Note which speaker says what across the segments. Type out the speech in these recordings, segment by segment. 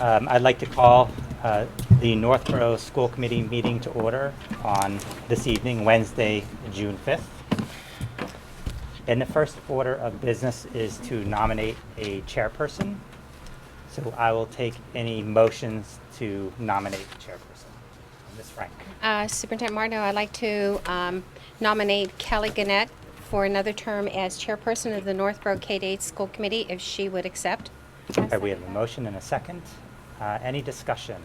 Speaker 1: Um, I'd like to call uh, the Northborough School Committee meeting to order on this evening, Wednesday, June 5th. And the first order of business is to nominate a chairperson. So I will take any motions to nominate a chairperson. Ms. Frank.
Speaker 2: Uh, Superintendent Mardo, I'd like to um, nominate Kelly Gannett for another term as chairperson of the Northborough K-8 School Committee, if she would accept.
Speaker 1: Okay, uh, we have a motion and a second. Uh, Any discussion?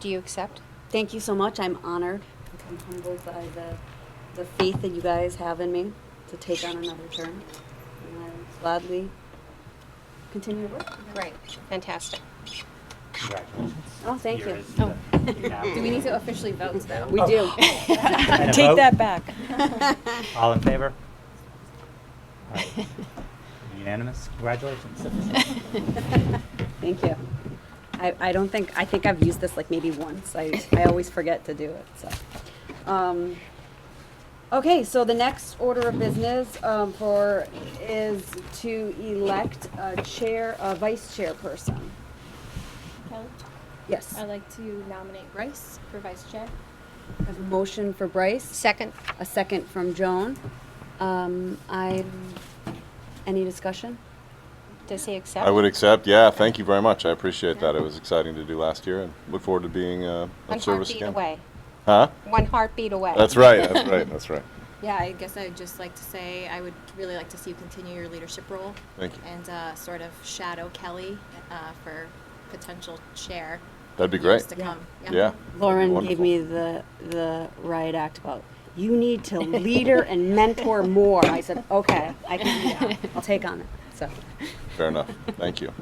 Speaker 2: Do you accept?
Speaker 3: Thank you so much. I'm honored. I'm humbled by the, the faith that you guys have in me to take on another term. And I gladly continue to work.
Speaker 2: Great. Fantastic.
Speaker 1: Congratulations.
Speaker 3: Oh, thank you.
Speaker 1: Here is the- you now-
Speaker 4: Do we need to officially vote though?
Speaker 5: We do.
Speaker 1: And a vote?
Speaker 5: Take that back.
Speaker 1: All in favor? All right. Unanimous, congratulations.
Speaker 3: Thank you. I, I don't think, I think I've used this like maybe once. I, I always forget to do it, so. Um, Okay, so the next order of business, um, for, is to elect a chair, a vice chairperson.
Speaker 4: Kelly,
Speaker 3: Yes.
Speaker 4: I'd like to nominate Bryce for vice chair.
Speaker 3: I have a motion for Bryce,
Speaker 2: Second?
Speaker 3: a second from Joan. Um, I, any discussion?
Speaker 2: Does he accept?
Speaker 6: I would accept. Yeah, thank you very much. I appreciate that. It was exciting to do last year, and look forward to being uh,
Speaker 2: One
Speaker 6: of service
Speaker 2: heartbeat
Speaker 6: again.
Speaker 2: away.
Speaker 6: Huh?
Speaker 2: One heartbeat away.
Speaker 6: That's right. That's right. That's right.
Speaker 4: Yeah, I guess I'd just like to say I would really like to see you continue your leadership role
Speaker 6: Thank you.
Speaker 4: and uh, sort of shadow Kelly uh, for potential chair.
Speaker 6: That'd be
Speaker 4: years
Speaker 6: great.
Speaker 4: To come.
Speaker 6: Yeah.
Speaker 3: Lauren gave
Speaker 6: Wonderful.
Speaker 3: me the, the riot act about, you need to leader and mentor more. I said, okay, I can do that. I'll take on it. So,
Speaker 6: Fair enough. Thank you.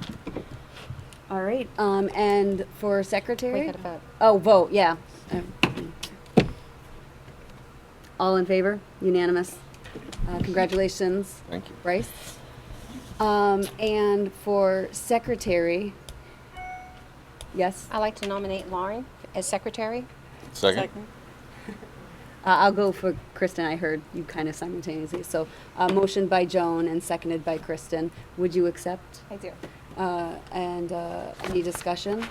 Speaker 3: all right, um, and for secretary?
Speaker 2: We got a vote.
Speaker 3: Oh, vote, yeah. Um, All in favor? Unanimous. Uh, congratulations.
Speaker 6: Thank you.
Speaker 3: Bryce. Um, and for secretary, yes, uh,
Speaker 2: I'd like to nominate Lauren as secretary.
Speaker 6: Second.
Speaker 3: I'll go for Kristen. I heard you kind of simultaneously. So, uh, motion by Joan and seconded by Kristen. Would you accept?
Speaker 2: I do.
Speaker 3: Uh, and uh, any discussion?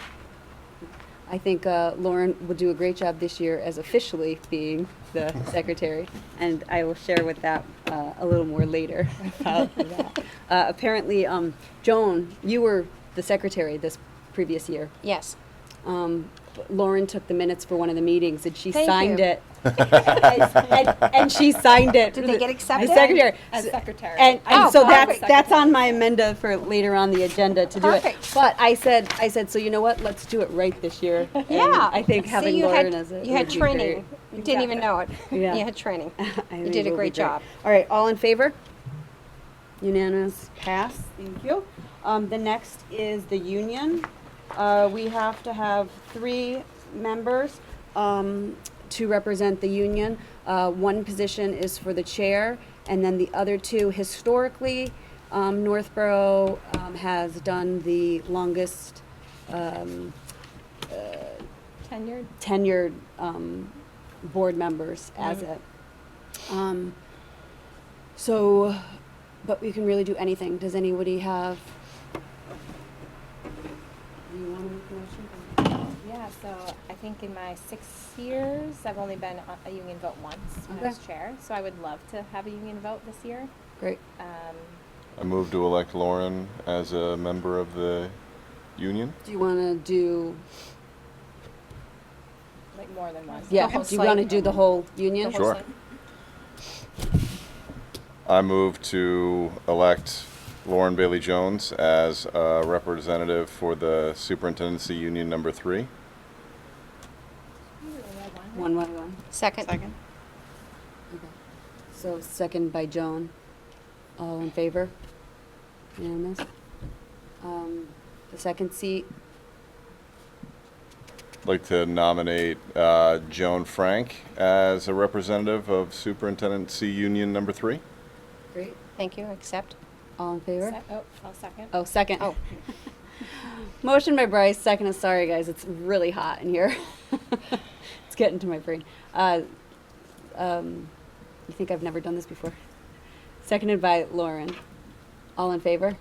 Speaker 3: I think uh, Lauren will do a great job this year as officially being the secretary, and I will share with that uh, a little more later about that. Uh, apparently, um, Joan, you were the secretary this previous year.
Speaker 2: Yes.
Speaker 3: Um, Lauren took the minutes for one of the meetings, and she
Speaker 2: Thank
Speaker 3: signed
Speaker 2: you.
Speaker 3: it. and, and she signed it.
Speaker 2: Did they get accepted?
Speaker 3: As secretary.
Speaker 4: As secretary.
Speaker 3: And, and
Speaker 2: Oh,
Speaker 3: so that's
Speaker 2: perfect.
Speaker 3: that's on my amenda for later on the agenda to do it.
Speaker 2: Perfect.
Speaker 3: But I said I said so. You know what? Let's do it right this year. And
Speaker 2: Yeah.
Speaker 3: I think
Speaker 2: See,
Speaker 3: having
Speaker 2: you had-
Speaker 3: Lauren as it
Speaker 2: You had
Speaker 3: would be
Speaker 2: training.
Speaker 3: great.
Speaker 2: You didn't even know it.
Speaker 3: Yeah.
Speaker 2: You had training.
Speaker 3: I think
Speaker 2: You
Speaker 3: it
Speaker 2: did a
Speaker 3: will be
Speaker 2: great job.
Speaker 3: All right, all in favor? Unanimous pass. Thank you. Um, the next is the union. Uh, we have to have three members um, to represent the union. Uh, one position is for the chair, and then the other two, historically, um, Northborough um, has done the longest um,
Speaker 4: Tenured.
Speaker 3: tenured um, board members as
Speaker 2: Mm.
Speaker 3: it. Um, so, but we can really do anything. Does anybody have? Do you want to make a motion?
Speaker 7: Yeah, so I think in my six years, I've only been on a union vote once when I was
Speaker 3: Okay.
Speaker 7: chair, so I would love to have a union vote this year.
Speaker 3: Great.
Speaker 7: Um,
Speaker 6: I move to elect Lauren as a member of the union.
Speaker 3: Do you want to do?
Speaker 7: like more than once.
Speaker 3: Yeah.
Speaker 2: whole
Speaker 3: Do you want to
Speaker 2: slate.
Speaker 3: do the whole union?
Speaker 6: Sure. I move to elect Lauren Bailey Jones as a representative for the superintendency union number three.
Speaker 3: One, one, one.
Speaker 2: Second? Second.
Speaker 3: Okay. So second by Joan. All in favor? Unanimous. Um, the second seat.
Speaker 6: I'd like to nominate uh, Joan Frank as a representative of Superintendency Union Number Three.
Speaker 3: Great.
Speaker 2: Thank you. Accept.
Speaker 3: All in favor?
Speaker 7: Se- Oh, I'll second.
Speaker 3: Oh, second.
Speaker 2: Oh.
Speaker 3: Motion by Bryce, second is sorry, guys. It's really hot in here. it's getting to my brain. Uh, um, you think I've never done this before? Seconded by Lauren. All in favor?